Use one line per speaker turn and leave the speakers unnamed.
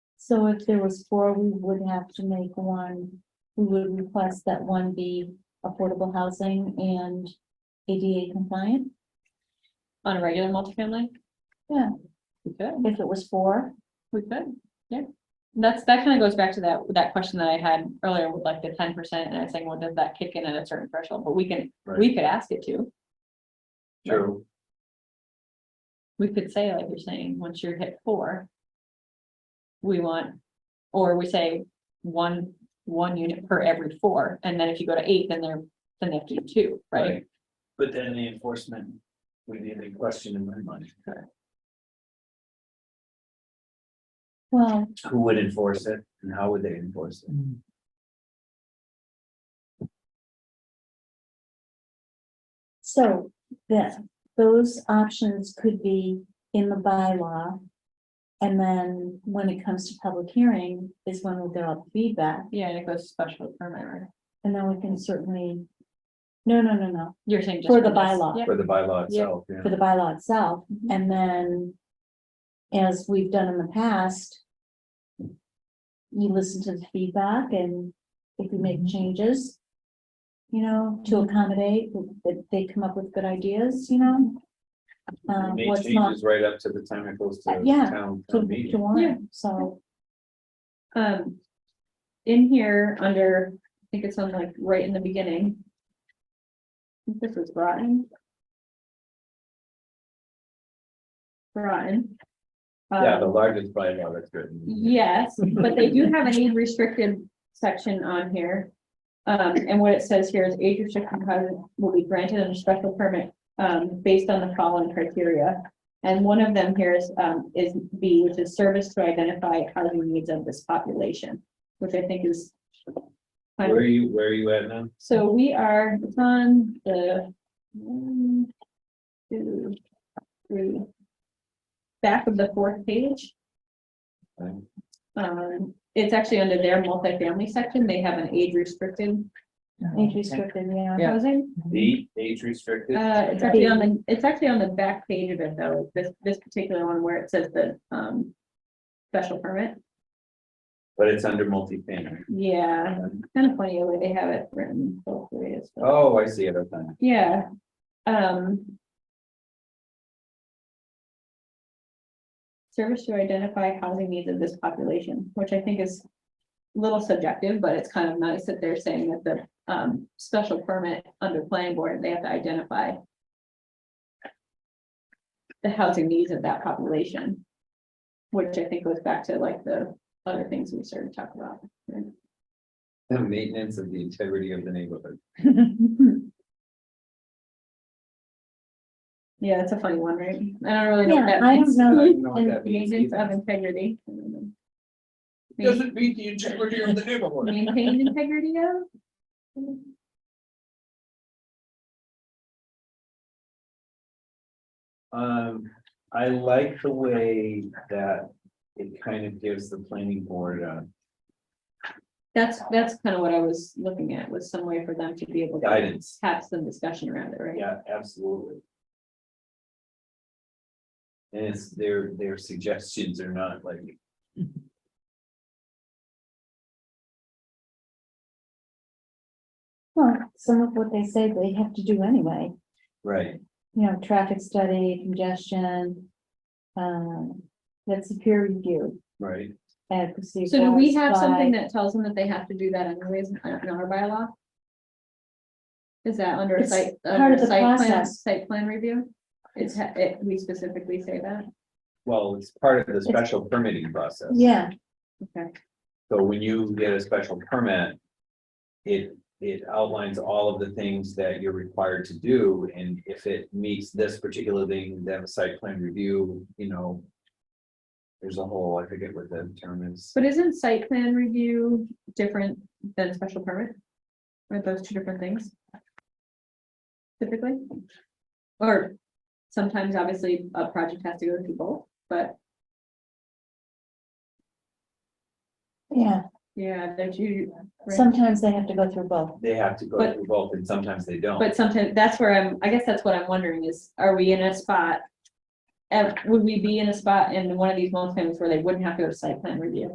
So if there was four, we would have to make one, we would request that one be affordable housing and ADA compliant,
on a regular multifamily?
Yeah.
We could,
if it was four.
we could, yeah. That's, that kind of goes back to that, that question that I had earlier with like the ten percent and I was saying, well, does that kick in at a certain threshold? But we can, we could ask it to.
True.
We could say, like you're saying, once you're hit four. We want, or we say one, one unit per every four, and then if you go to eight, then they're, then they have to do two, right?
But then the enforcement would be the question in my mind.
Well,
Who would enforce it and how would they enforce it?
so that, those options could be in the bylaw. And then when it comes to public hearing is when we'll get all the feedback
Yeah, and it goes to special permit, right?
and then we can certainly. No, no, no, no,
You're saying. just
For the
this.
bylaw.
Yeah.
For the bylaw
Yeah.
itself, yeah.
for the bylaw itself.
Mhm.
And then, as we've done in the past, you listen to the feedback and if you make
Mm-hmm.
changes, you know, to accommodate, that they come up with good ideas, you know? Um,
They
what's not
changes right up to the time it goes to
Uh, yeah,
town
to,
town
to
meeting.
warrant, so.
Um, in here, under, I think it's on like right in the beginning. I think This was brought in. Brought in.
Yeah,
Um,
the largest bylaw that's written.
Yes, but they do have an age restricted section on here. Um, and what it says here is age restricted housing will be granted under special permit, um, based on the following criteria. And one of them here is, um, is B, which is service to identify housing needs of this population, which I think is.
Where are you, where are you at now?
So we are it's on the one, two, three. Back of the fourth page.
Um,
Um, it's actually under their multifamily section. They have an age restricted
Age restricted, yeah.
housing.
Mm-hmm.
The age restricted,
Uh, it's actually on the, it's actually on the back page of it though, this, this particular one where it says the, um. Special permit.
but it's under multifamily.
Yeah, kind of funny the way they have it written both ways. but-
Oh, I see it, okay.
Yeah, um. Service to identify housing needs of this population, which I think is a little subjective, but it's kind of nice that they're saying that the, um, special permit under planning board, they have to identify. The housing needs of that population. Which I think goes back to like the other things we started talking about.
The maintenance of the integrity of the neighborhood.
Yeah, that's a funny one, right? I don't really know what
Yeah,
that
I
means.
don't know,
don't know what
And
that means
Maintenance of
either.
integrity. Main-
Doesn't meet the integrity of the neighborhood.
Maintain integrity of?
Um, I like the way that it kind of gives the planning board, uh,
That's, that's kind of what I was looking at, was some way for them to be able to
guidance.
have some discussion around it, right?
Yeah, absolutely. And it's their, their suggestions are not like.
Well, some of what they say they have to do anyway,
Right.
you know, traffic study, congestion. Um, that's a peer review,
Right,
advocacy.
So do we have
votes by-
something that tells them that they have to do that anyways in in our bylaw? Is that under a
It's
site,
part
under
of the
site plan,
process.
site plan review? It's, ha- it, we specifically say that?
well, it's part of the special permitting process.
Yeah,
Okay.
So when you get a special permit. It, it outlines all of the things that you're required to do, and if it meets this particular thing, then a site plan review, you know. There's a whole, I forget what the term is,
But isn't site plan review different than special permit? Are those two different things? Typically? Or sometimes obviously a project has to go through both, but
yeah,
yeah, there's you.
sometimes they have to go through both.
they have to go
But-
through both, and sometimes they don't.
But sometimes, that's where I'm, I guess that's what I'm wondering is, are we in a spot? And would we be in a spot in one of these multi-families where they wouldn't have to go to site plan review?